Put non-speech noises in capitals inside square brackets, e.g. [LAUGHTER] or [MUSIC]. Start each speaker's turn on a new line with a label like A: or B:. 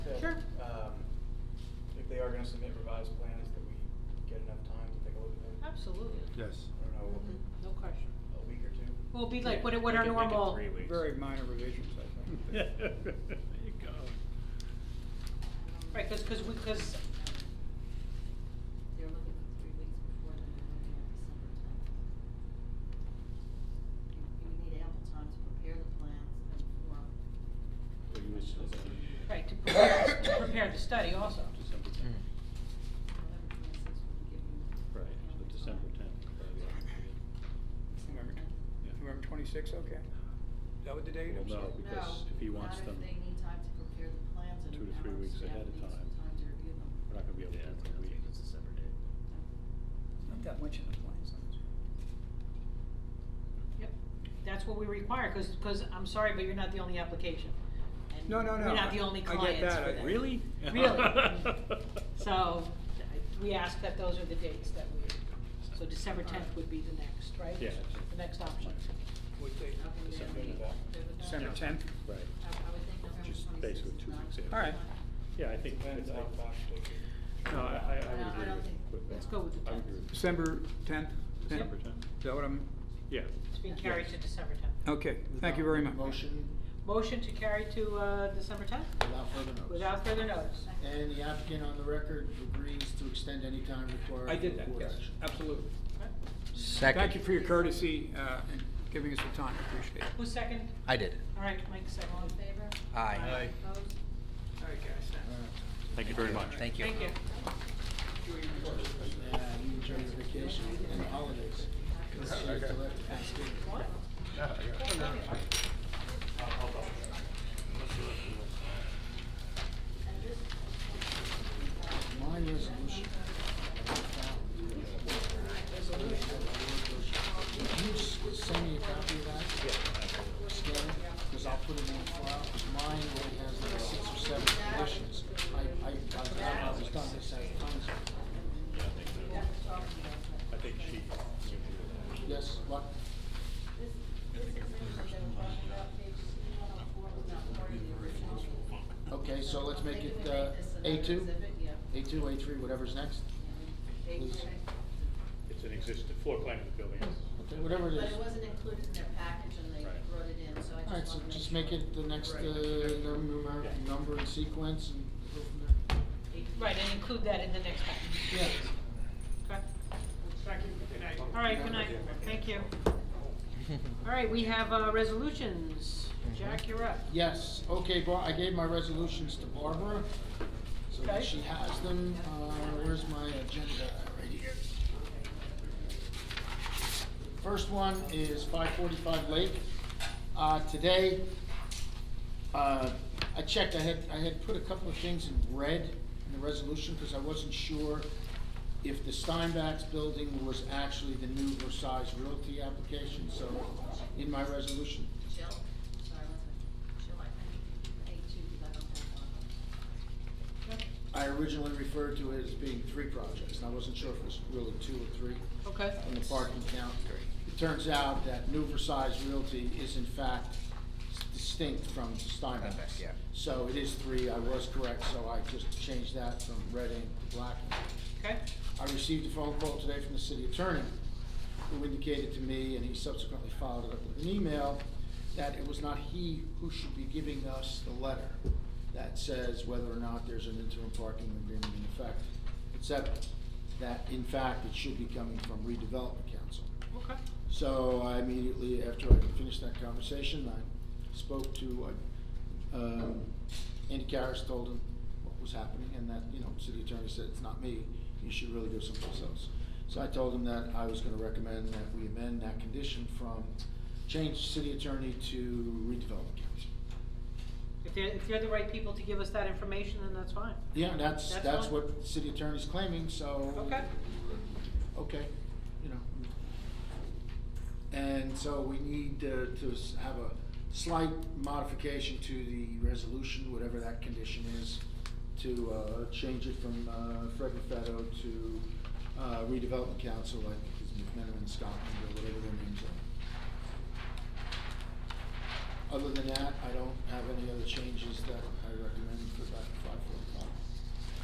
A: Um, gonna submit revised plans that we get enough time to take a look at them?
B: Absolutely. Mm-hmm.
C: Yes.
A: I don't know,
B: No question.
A: a week or two?
B: Will be like what,
D: Yeah,
B: what
D: make
B: our
D: it- make it
B: normal.
D: three weeks.
A: Very minor revisions, I [LAUGHS] think.
C: There you go.
B: Right, cause, cause we, cause,
E: They're looking for three weeks before, then they're looking at December tenth. You you need ample time to prepare the plans and form.
D: Well, you was-
B: right, to prepare, to prepare the study also.
D: December tenth.
E: November twenty-sixth would give you.
D: Right, so
E: ample
D: December
E: time.
D: tenth. probably ought to be it.
A: November
E: December
A: tenth.
E: 10th.
D: Yeah.
A: November twenty-sixth, okay. Is that what the date,
D: Well,
A: I'm
D: no,
A: sorry?
D: Oh, because if he wants them-
E: No, not if they need time to prepare the plans and.
D: two to three
E: our
D: weeks
E: staff
D: ahead of
E: needs some
D: time.
E: Time to review them.
D: We're not gonna be able to do it in a week.
A: Not that much in the plans.
B: Yep, that's what we require, cause, cause I'm sorry, but you're not the only application. And
A: No, no, no.
B: We're not the only
A: I get
B: clients
A: that.
B: for
A: I-
B: that.
D: Really?
A: [LAUGHS]
B: Really. Mm-hmm. [LAUGHS] So, I- we ask that those are the dates that we, so December tenth would be the next, right?
D: Yeah.
B: The next option.
A: What date?
E: Okay, then
D: December
E: we-
D: tenth.
E: there we go.
A: December
D: Yeah.
A: tenth?
D: Right.
E: I I would think November
D: Just
E: twenty-sixth.
D: basically
E: is
D: two
E: not
D: weeks
E: a
D: ahead.
E: good
A: All right.
E: time.
D: Yeah, I think.
A: Depends how fast they can.
D: No, I, I- I
E: I
D: would
E: don't
D: agree
E: think-
D: with that.
B: Let's go with the
D: I would
B: tenth.
D: agree with that.
A: December tenth?
D: December tenth.
A: Is that what I'm,
D: Yeah.
B: It's being carried to December tenth.
A: okay, thank you very much.
F: Motion
B: Motion to carry to, uh, December tenth,
F: without further notice.
B: without further notice.
F: And the applicant on the record agrees to extend any time required.
A: I did
F: for
A: that,
F: board
A: yes,
F: action.
A: absolutely.
G: Second.
A: Thank you for your courtesy, uh, and giving us the time, appreciate it.
B: Who's second?
G: I did it.
B: All right, Mike, second.
E: All in favor?
G: Aye.
A: Aye.
E: Opposed?
A: All right, guys,
D: Thank you very much.
G: Thank you.
B: Thank you.
F: Uh, you enjoy your vacation and holidays. Let's see, till after Thanksgiving. My resolution. Can you s- send me a copy of that? Scan because I'll put it in the file. Mine only has like six or seven conditions. I, I, I- I was done this as times.
D: I think she. would do that.
F: Yes, what? Okay, so let's make it, uh, A two? A two, A three, whatever's next? Please.
D: It's an existing floor plan of the building.
F: Okay, whatever it is.
E: But it wasn't included in their package and they
D: Right.
E: brought it in, so I just wanted to make
F: All right, so just make it the next, uh,
E: Right.
F: number,
D: Yeah.
F: number and sequence and go from
B: Right, and include that in the next package.
F: there.
B: Okay. All right, good night, thank you. All right, we have, uh, resolutions.
G: Mm-hmm.
B: Jack, you're up.
F: Yes, okay, Bar, I gave my resolutions to Barbara, so that
B: Okay.
F: she has them, uh, where's my agenda, right here. First one is five forty-five Lake, uh, today, uh, I checked, I had, I had put a couple of things in red in the resolution, because I wasn't sure if the Steinbach's building was actually the new Versailles Realty application, so in my resolution,
E: Jill, sorry, one second. Jill, I I need A two because I don't have one.
F: I originally referred to it as being three projects, and I wasn't sure if it was really two or three
B: Okay.
F: on the parking count. It turns out that New Versailles Realty is in fact distinct from Steinbeck's.
G: Steinbeck, yeah.
F: So it is three, I was correct, so I just changed that from red ink to black ink.
B: Okay,
F: I received a phone call today from the city attorney, who indicated to me, and he subsequently followed it up with an email, that it was not he who should be giving us the letter that says whether or not there's an interim parking agreement in effect, et cetera. That in fact, it should be coming from redevelopment council.
B: okay.
F: So I immediately, after I finished that conversation, I spoke to, uh, um, Andy Karas, told him what was happening, and that, you know, city attorney said, it's not me, you should really go someplace else. So I told him that I was gonna recommend that we amend that condition from, change city attorney to redevelopment council.
B: If they're, if they're the right people to give us that information, then that's fine.
F: Yeah, that's,
B: That's
F: that's
B: fine.
F: what the city attorney's claiming, so.
B: Okay.
F: okay, you know. And so we need uh, to s- have a slight modification to the resolution, whatever that condition is, to uh, change it from uh, Fred Raffetto to uh, redevelopment council, I think it's McMenamin and Scotland, or whatever their names are. Other than that, I don't have any other changes that I recommend for that